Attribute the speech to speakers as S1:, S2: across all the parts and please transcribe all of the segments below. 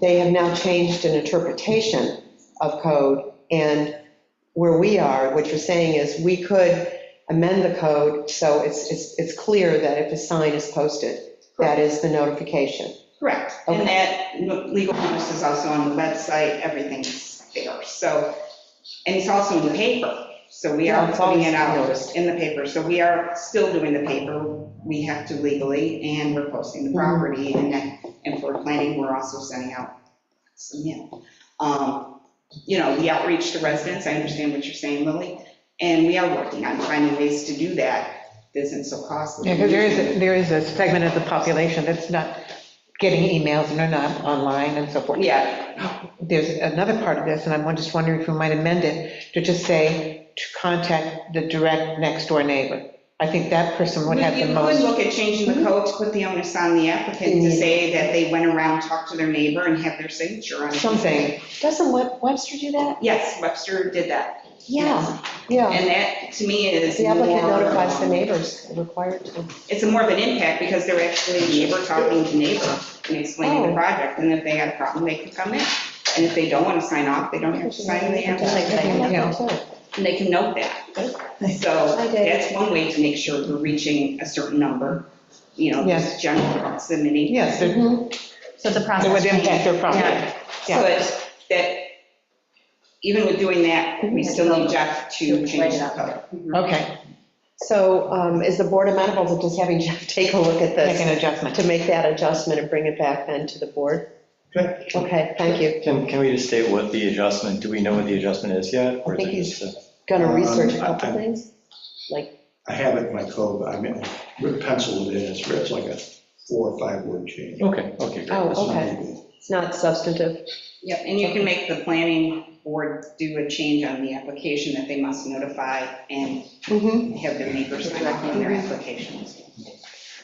S1: they have now changed an interpretation of code, and where we are, what you're saying is, we could amend the code, so it's, it's, it's clear that if a sign is posted, that is the notification.
S2: Correct, and that legal notice is also on the website, everything's there, so, and it's also in the paper, so we
S1: Yeah,
S2: are
S1: it's
S2: putting it
S1: always
S2: out in the paper, so we are still doing the paper, we have to legally, and we're posting the
S1: Mhm.
S3: Mm-hmm.
S2: property, and then, and for planning, we're also sending out some mail. Um, You know, we outreach to residents, I understand what you're saying, Lily, and we are working on finding ways to do that, that isn't so costly.
S3: Yeah, because there is, a- there is a segment of the population that's not getting emails and they're not online and so forth.
S2: Yeah,
S3: There's another part of this, and I'm just wondering if we might amend it to just say to contact the direct next door neighbor. I think that person would
S2: You
S3: have the
S2: could
S3: most.
S2: look at changing the code to put the onus on the applicant to say that they went around, talked to their neighbor, and have their signature on it.
S3: Something.
S1: Doesn't Web- Webster do that?
S2: Yes, Webster did that.
S1: Yeah, yeah.
S2: And that, to me, is
S1: The applicant
S2: more-
S1: notifies the neighbors, required to.
S2: It's a more of an impact, because they're actually neighbor talking to neighbor and explaining
S1: Oh.
S2: the project, and if they had a problem, they could come in. And if they don't want to sign off, they don't have to sign, and they have to sign,
S3: Yeah.
S2: and they can note that. So
S1: I did.
S2: that's one way to make sure we're reaching a certain number, you know,
S3: Yes.
S2: just general proximity.
S3: Yes, it
S1: Mhm.
S4: So it's a
S3: it would
S4: process.
S3: impact their property.
S2: Yeah. But that, even with doing that, we still need Jeff Mm-hmm. to change the code.
S3: Okay,
S1: So um, is the board amenable to just having Jeff take a look at
S3: make an
S1: this,
S3: adjustment.
S1: to make that adjustment and bring it back then to the board?
S5: Okay.
S1: Okay, thank you.
S5: Can, can we just state what the adjustment, do we know what the adjustment is yet? or is
S1: I think
S5: it
S1: he's-
S5: just a-
S1: Gonna
S6: Um,
S1: research a
S6: I-
S1: couple
S6: I-
S1: things?
S6: I have it in my code, but I mean, I penciled it in, it's, it's like a four or five word change.
S5: Okay, okay, great.
S1: Oh,
S6: It's not
S1: okay.
S6: big.
S1: It's not substantive.
S2: Yep, and you can make the planning board do a change on the application that they must notify and
S3: Mm-hmm.
S1: Mhm.
S2: have their neighbors sign off on their applications.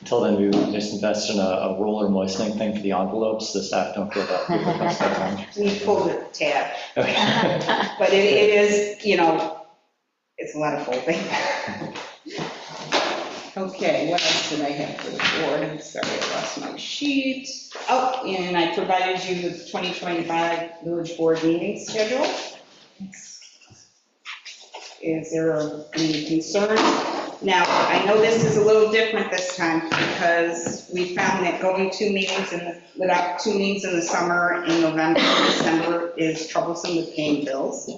S5: Until then, we would just invest in a, a roller moistening thing for the envelopes, the staff don't feel that. people don't spend time.
S2: We pulled the tab,
S5: Okay.
S2: but it it is, you know, it's a lot of folding. Okay, what else did I have for the board? I'm sorry, I lost my sheet. Oh, and I provided you with 2025 village board meeting schedule. Is there any concern? Now, I know this is a little different this time because we found that going two meetings in, the- without two meetings in the summer in November, and December is troublesome with paying bills.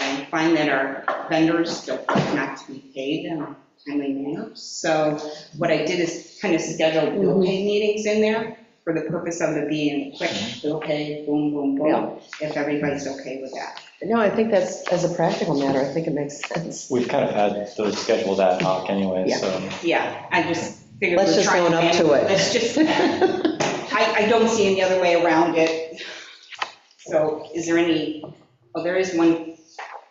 S2: I find that our vendors don't like not to be paid in a timely manner. So what I did is kind of schedule
S1: Mm-hmm.
S2: bill pay meetings in there for the purpose of it being quick, bill pay, boom, boom, boom, if everybody's okay with that.
S1: No, I think that's, as a practical matter, I think it makes sense.
S5: We've kind of had those scheduled ad hoc anyway,
S1: Yeah.
S5: so.
S2: Yeah, I just figured.
S1: Let's
S2: we're
S1: just
S2: trying
S1: own up to it.
S2: Let's just, I, I don't see any other way around it. So is there any, oh, there is one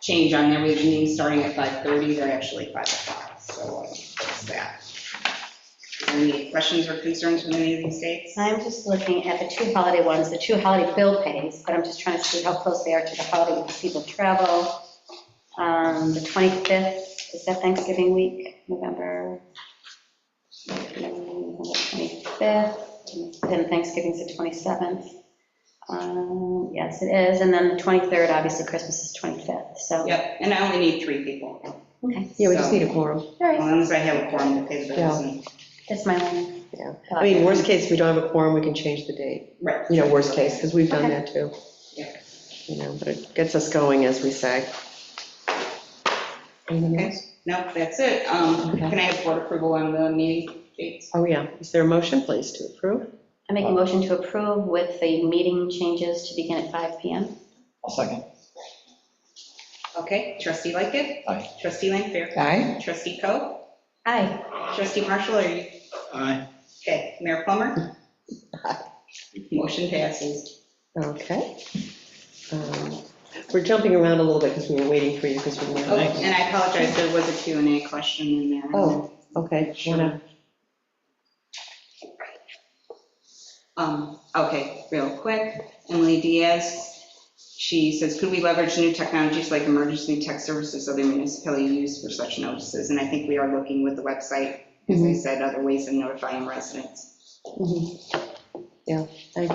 S2: change on there, we have meetings starting at 5:30, they're actually 5 o'clock, so that's that. Is there Any questions or concerns from any of these dates?
S4: I'm just looking at the two holiday ones, the two holiday bill pays, but I'm just trying to see how close they are to the holiday, because people travel. Um, The 25th, is that Thanksgiving week, November? November 25th, then Thanksgiving's the 27th. Um, Yes, it is, and then the 23rd, obviously Christmas is 25th, so.
S2: Yep, and I only need three people,
S4: Okay,
S1: Yeah, we just need a quorum.
S4: all right.
S2: as long as I have a quorum to pay the bills. and-
S4: That's my one.
S1: Yeah. I mean, worst case, we don't have a quorum, we can change the date.
S2: Right.
S1: You know, worst case, because we've done that too.
S2: Yeah.
S1: You know, but it gets us going, as we say. Anything
S2: Okay.
S1: else?
S2: No, that's it. Um,
S1: Okay.
S2: Can I have board approval on the meeting dates?
S1: Oh, yeah. Is there a motion, please, to approve?
S4: I make a motion to approve with the meeting changes to begin at 5 PM.
S5: I'll second.
S2: Okay, trustee Lightgev.
S5: Aye.
S2: Trustee Lanfair.
S3: Aye?
S2: Trustee Coe.
S4: Aye.
S2: Trustee Marshall, are you,
S6: Aye.
S2: okay, Mayor Plummer? Motion passes.
S1: Okay. Um, We're jumping around a little bit because we were waiting for you because we
S2: Oh,
S1: were.
S2: and I apologize, there was a Q and A question in there.
S1: Oh, okay. wanna-
S2: Um, okay, real quick, Emily Diaz, she says, could we leverage new technologies like emergency text services other municipalities use for such notices? And I think we are looking with the website, as I said, other ways of notifying residents.
S1: Mhm.